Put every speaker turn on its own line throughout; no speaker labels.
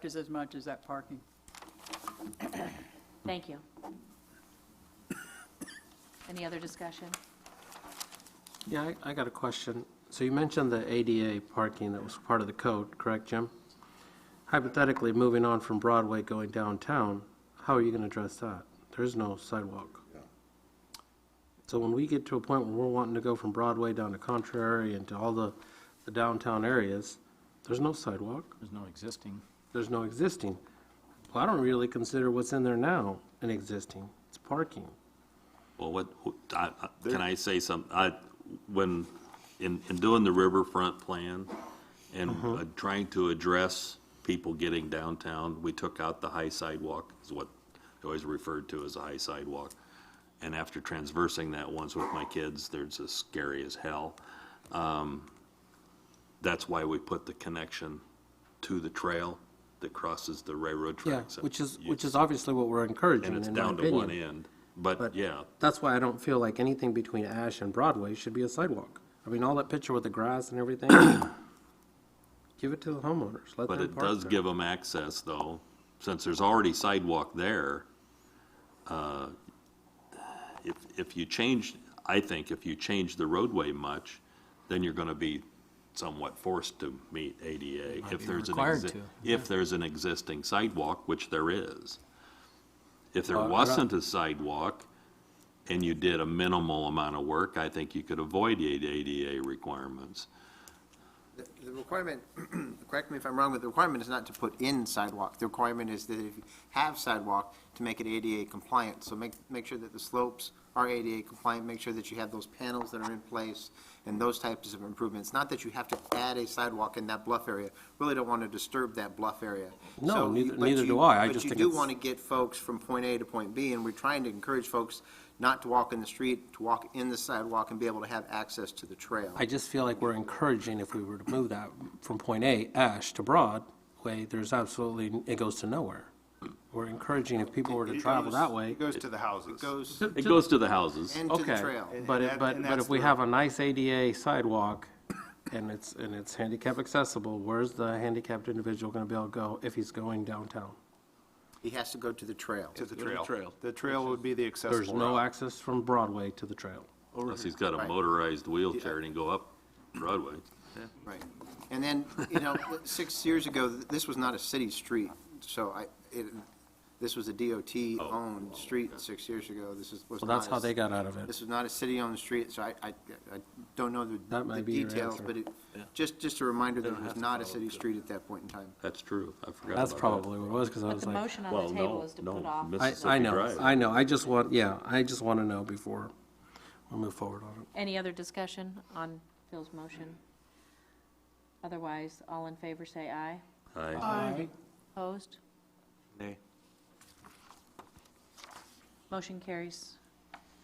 That is as much as that parking.
Thank you. Any other discussion?
Yeah, I, I got a question. So you mentioned the ADA parking that was part of the code, correct, Jim? Hypothetically, moving on from Broadway going downtown, how are you gonna address that? There's no sidewalk. So when we get to a point where we're wanting to go from Broadway down to Contrary and to all the, the downtown areas, there's no sidewalk,
There's no existing.
there's no existing. Well, I don't really consider what's in there now an existing. It's parking.
Well, what, who- I- I- can I say some, I, when, in, in doing the riverfront plan and uh, trying to address people getting downtown, we took out the high sidewalk, is what I always referred to as a high sidewalk. And after transversing that once with my kids, there's as scary as hell. Um, That's why we put the connection to the trail that crosses the railroad
Yeah,
tracks.
which is,
You-
which is obviously what we're encouraging,
And it's
in my
down to one
opinion.
end.
But-
But, yeah,
That's why I don't feel like anything between Ash and Broadway should be a sidewalk. I mean, all that picture with the grass and everything, give it to the homeowners, let
But
them
it
park
does
there.
give them access, though, since there's already sidewalk there. uh, If, if you change, I think if you change the roadway much, then you're gonna be somewhat forced to meet ADA.
Might
If
be
there's an,
required
exi-
to,
if there's an existing sidewalk, which there is. If there
Uh, I don't-
wasn't a sidewalk and you did a minimal amount of work, I think you could avoid the ADA requirements.
The the requirement, correct me if I'm wrong, but the requirement is not to put in sidewalk. The requirement is that if you have sidewalk, to make it ADA compliant. So make, make sure that the slopes are ADA compliant, make sure that you have those panels that are in place and those types of improvements. Not that you have to add a sidewalk in that bluff area. Really don't want to disturb that bluff area.
No,
So you-
neither-
but
neither
you-
do I. I
but
just
you
think
do
it's-
want to get folks from point A to point B, and we're trying to encourage folks not to walk in the street, to walk in the sidewalk and be able to have access to the trail.
I just feel like we're encouraging if we were to move that from point A, Ash, to Broadway, there's absolutely, it goes to nowhere. We're encouraging if people were to travel that way.
It goes to the houses.
Goes
It goes to the houses.
into the
Okay,
trail.
but,
And
it-
that-
but,
and
but
that's
if we
the-
have a nice ADA sidewalk and it's, and it's handicap accessible, where's the handicapped individual gonna be able to go if he's going downtown?
He has to go to the trail.
To the trail. The trail would be the accessible
There's no
route.
access from Broadway to the trail.
Unless he's got a
Right.
motorized wheelchair and he can go up Broadway.
Right. And then, you know, six years ago, th- this was not a city street, so I, it, this was a
Oh.
DOT-owned street six years ago. This is, was
Well,
not.
that's
a
how
s-
they got out of it.
This was not a city-owned street, so I, I, I don't know the
That might
the
be your
details,
answer.
but it, just, just a reminder that it was not a city street at that point in time.
That's true. I forgot
That's
about that.
probably what it was, because I
But
was
the
like,
motion on
Well,
the table
no,
is to put
no,
off.
I,
Mississippi
I know,
Drive.
I know, I just want, yeah, I just want to know before we move forward on it.
Any other discussion on Phil's motion? Otherwise, all in favor say aye. Uh,
I-
Opposed? Nay. Motion carries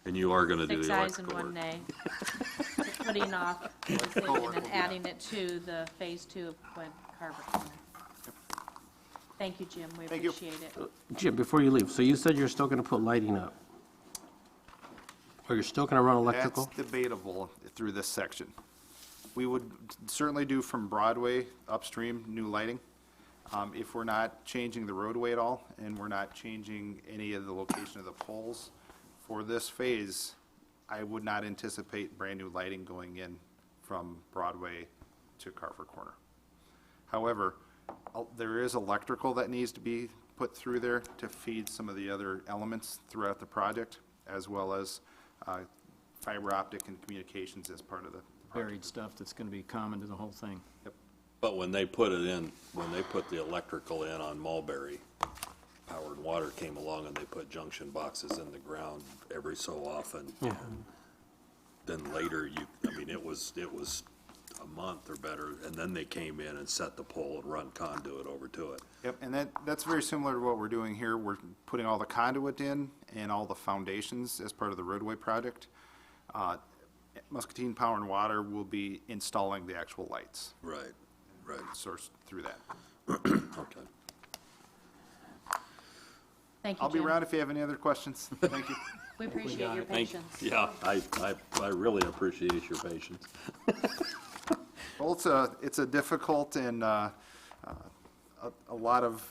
And you are gonna do
six
the
ayes and
electrical
one
work.
nay. Putting off the decision and adding it to the phase two of Glen Carver Corner. Thank you, Jim. We
you. Uh,
appreciate it.
Jim, before you leave, so you said you're still going to put lighting up? Or you're still going to run
That's
electrical?
debatable through this section. We would certainly do from Broadway upstream, new lighting. Um, If we're not changing the roadway at all, and we're not changing any of the location of the poles for this phase, I would not anticipate brand-new lighting going in from Broadway to Carver Corner. However, uh, there is electrical that needs to be put through there to feed some of the other elements throughout the project, as well as uh, fiber optic and communications as part of the
Buried stuff that's going to be common to the whole thing.
But when they put it in, when they put the electrical in on Mulberry, Power and Water came along and they put junction boxes in the ground every so often. Then later, you, I mean, it was, it was a month or better, and then they came in and set the pole and run conduit over to it.
Yep, and that, that's very similar to what we're doing here. We're putting all the conduit in and all the foundations as part of the roadway project. Uh, Muscatine Power and Water will be installing the actual lights
Right, right,
sourced through that.
okay.
Thank you, Jim.
I'll be around if you have any other questions. Thank you.
We appreciate your
Thank,
patience.
yeah, I, I, I really appreciate your patience.
Well, it's a, it's a difficult and uh, uh, a, a lot of